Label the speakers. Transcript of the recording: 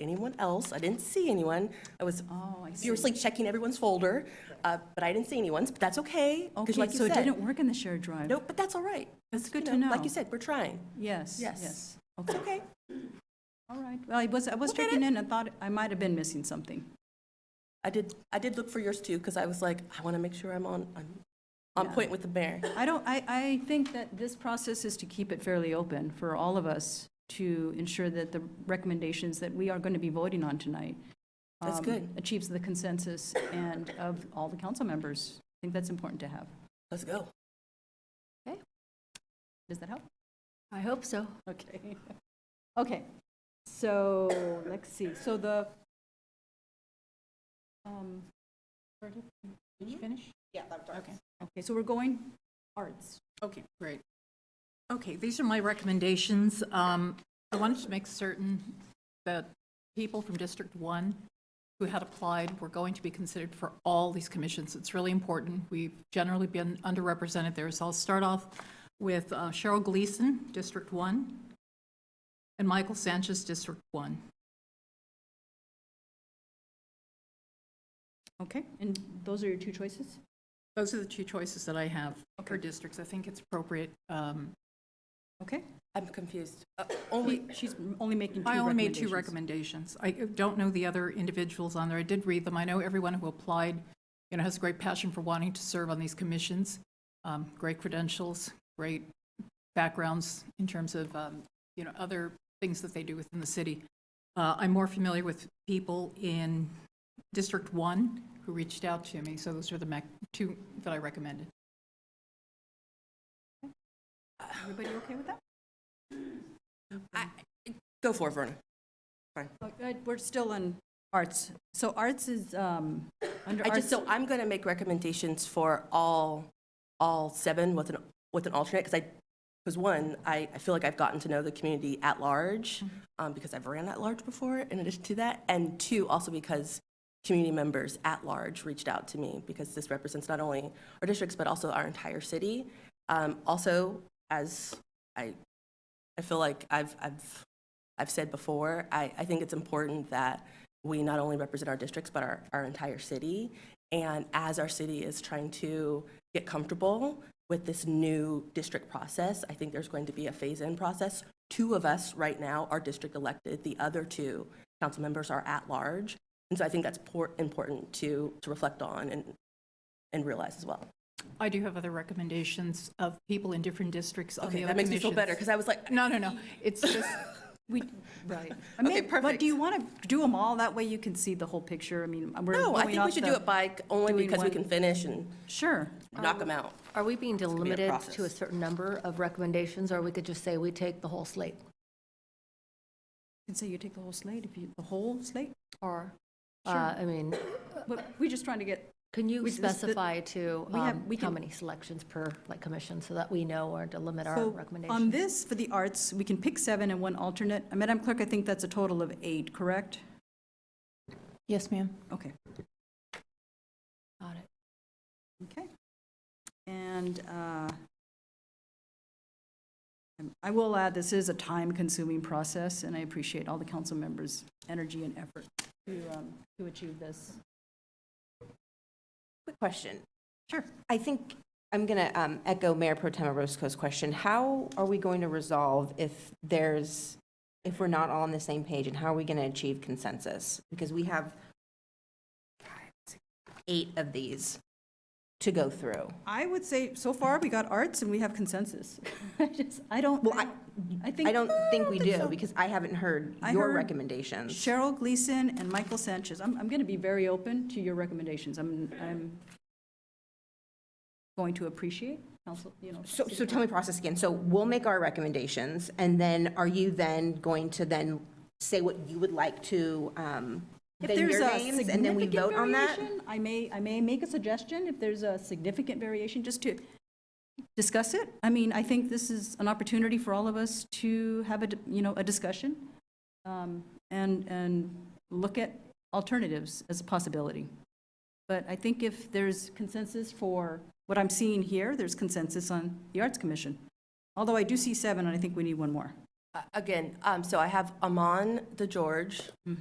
Speaker 1: anyone else. I didn't see anyone. I was
Speaker 2: Oh,
Speaker 1: furiously checking everyone's folder, uh, but I didn't see anyone's, but that's okay. 'cause
Speaker 2: Okay,
Speaker 1: like you
Speaker 2: so it
Speaker 1: said-
Speaker 2: didn't work in the shared drive?
Speaker 1: Nope, but that's all right.
Speaker 2: That's good
Speaker 1: You
Speaker 2: to know.
Speaker 1: Like you said, we're trying.
Speaker 2: Yes,
Speaker 1: Yes.
Speaker 2: yes.
Speaker 1: It's
Speaker 2: Okay,
Speaker 1: okay.
Speaker 2: all right. Well, I was, I was
Speaker 1: We'll get
Speaker 2: checking in and thought I might have been missing something.
Speaker 1: I did, I did look for yours too, because I was like, I want to make sure I'm on, I'm on
Speaker 2: Yeah.
Speaker 1: point with the mayor.
Speaker 2: I don't, I, I think that this process is to keep it fairly open for all of us to ensure that the recommendations that we are going to be voting on tonight.
Speaker 1: That's
Speaker 2: um,
Speaker 1: good.
Speaker 2: Achieves the consensus and of all the council members. I think that's important to have.
Speaker 1: Let's go.
Speaker 2: Does that help?
Speaker 3: I hope so.
Speaker 2: Okay. Okay, so, let's see, so the, um, where did did
Speaker 1: Mm-hmm.
Speaker 2: you finish? Yeah, that was Okay, okay, so we're going arts.
Speaker 3: Okay, great. Okay, these are my recommendations. Um, I wanted to make certain that people from District 1 who had applied were going to be considered for all these commissions. It's really important. We've generally been underrepresented there. So I'll start off with uh, Cheryl Gleason, District 1, and Michael Sanchez, District 1.
Speaker 2: Okay, and those are your two choices?
Speaker 3: Those are the two choices that I have for districts. I think it's appropriate um,
Speaker 2: Okay,
Speaker 1: I'm confused. Uh,
Speaker 2: only,
Speaker 1: Only,
Speaker 2: she's only making two
Speaker 3: I only made two
Speaker 2: recommendations.
Speaker 3: recommendations. I don't know the other individuals on there. I did read them. I know everyone who applied, you know, has a great passion for wanting to serve on these commissions, um, great credentials, great backgrounds in terms of, um, you know, other things that they do within the city. Uh, I'm more familiar with people in District One who reached out to me, so those are the mac, two that I recommended.
Speaker 2: Everybody okay with that?
Speaker 1: go for it, Verna.
Speaker 2: Oh, good, We're still on arts. So arts is, um, under
Speaker 1: I just, so
Speaker 2: arts,
Speaker 1: I'm going to make recommendations for all, all seven with an, with an alternate, because I, because one, I, I feel like I've gotten to know the community at large, um, because I've ran at large before in addition to that, and two, also because community members at large reached out to me, because this represents not only our districts, but also our entire city. Um, also, as I, I feel like I've, I've, I've said before, I, I think it's important that we not only represent our districts, but our, our entire city. And as our city is trying to get comfortable with this new district process, I think there's going to be a phase-in process. Two of us right now are district elected, the other two council members are at-large. And so I think that's por- important to, to reflect on and, and realize as well.
Speaker 3: I do have other recommendations of people in different districts on the
Speaker 1: Okay,
Speaker 3: other
Speaker 1: that makes me feel
Speaker 3: commissions.
Speaker 1: better, because I was like,
Speaker 3: No, no, no. It's just,
Speaker 2: we, right. I
Speaker 1: Okay,
Speaker 2: mean, But
Speaker 1: perfect.
Speaker 2: do you want to do them all? That way you can see the whole picture. I mean, we're
Speaker 1: no, I
Speaker 2: going
Speaker 1: think we
Speaker 2: off
Speaker 1: should
Speaker 2: the-
Speaker 1: do it by, only
Speaker 2: doing
Speaker 1: because we
Speaker 2: one-
Speaker 1: can finish and
Speaker 2: Sure.
Speaker 1: knock them out.
Speaker 4: Are we being
Speaker 1: gonna be a
Speaker 4: delimited to a
Speaker 1: process.
Speaker 4: certain number of recommendations, or we could just say we take the whole slate?
Speaker 2: You can say you take the whole slate if you, the whole slate?
Speaker 4: Or,
Speaker 2: Sure.
Speaker 4: uh, I mean,
Speaker 2: But we're just trying to get,
Speaker 4: can you
Speaker 2: We- this- the-
Speaker 4: specify to
Speaker 2: we have-
Speaker 4: um,
Speaker 2: we
Speaker 4: how
Speaker 2: can-
Speaker 4: many selections per, like, commission, so that we know or to limit our
Speaker 2: so on
Speaker 4: recommendations?
Speaker 2: this, for the arts, we can pick seven and one alternate. Uh, Madam Clerk, I think that's a total of eight, correct?
Speaker 3: yes, ma'am.
Speaker 2: Okay,
Speaker 4: Got it.
Speaker 2: okay. And uh, um, I will add, this is a time-consuming process, and I appreciate all the council members' energy and effort to, um, to achieve this.
Speaker 5: Quick question.
Speaker 2: Sure.
Speaker 5: I think I'm going to echo Mayor Pro Tem Roscoe's question. How are we going to resolve if there's, if we're not all on the same page, and how are we going to achieve consensus? Because we have eight of these to go through.
Speaker 2: I would say, so far, we got arts and we have consensus. I just, I don't,
Speaker 5: Well, I-
Speaker 2: I think.
Speaker 5: I don't think we do,
Speaker 2: so.
Speaker 5: because I haven't heard
Speaker 2: I
Speaker 5: your
Speaker 2: heard-
Speaker 5: recommendations.
Speaker 2: Cheryl Gleason and Michael Sanchez. I'm, I'm going to be very open to your recommendations. I'm, I'm going to appreciate council, you know.
Speaker 5: So, so tell me process again. So we'll make our recommendations, and then are you then going to then say what you would like to, um,
Speaker 2: If
Speaker 5: then
Speaker 2: there's
Speaker 5: your
Speaker 2: a
Speaker 5: names, and then we
Speaker 2: significant
Speaker 5: vote on that?
Speaker 2: variation, I may, I may make a suggestion if there's a significant variation, just to discuss it. I mean, I think this is an opportunity for all of us to have a, d- you know, a discussion um, and, and look at alternatives as a possibility. But I think if there's consensus for what I'm seeing here, there's consensus on the Arts Commission. Although I do see seven, and I think we need one more.
Speaker 1: Uh, Again, um, so I have Amon DeGeorge,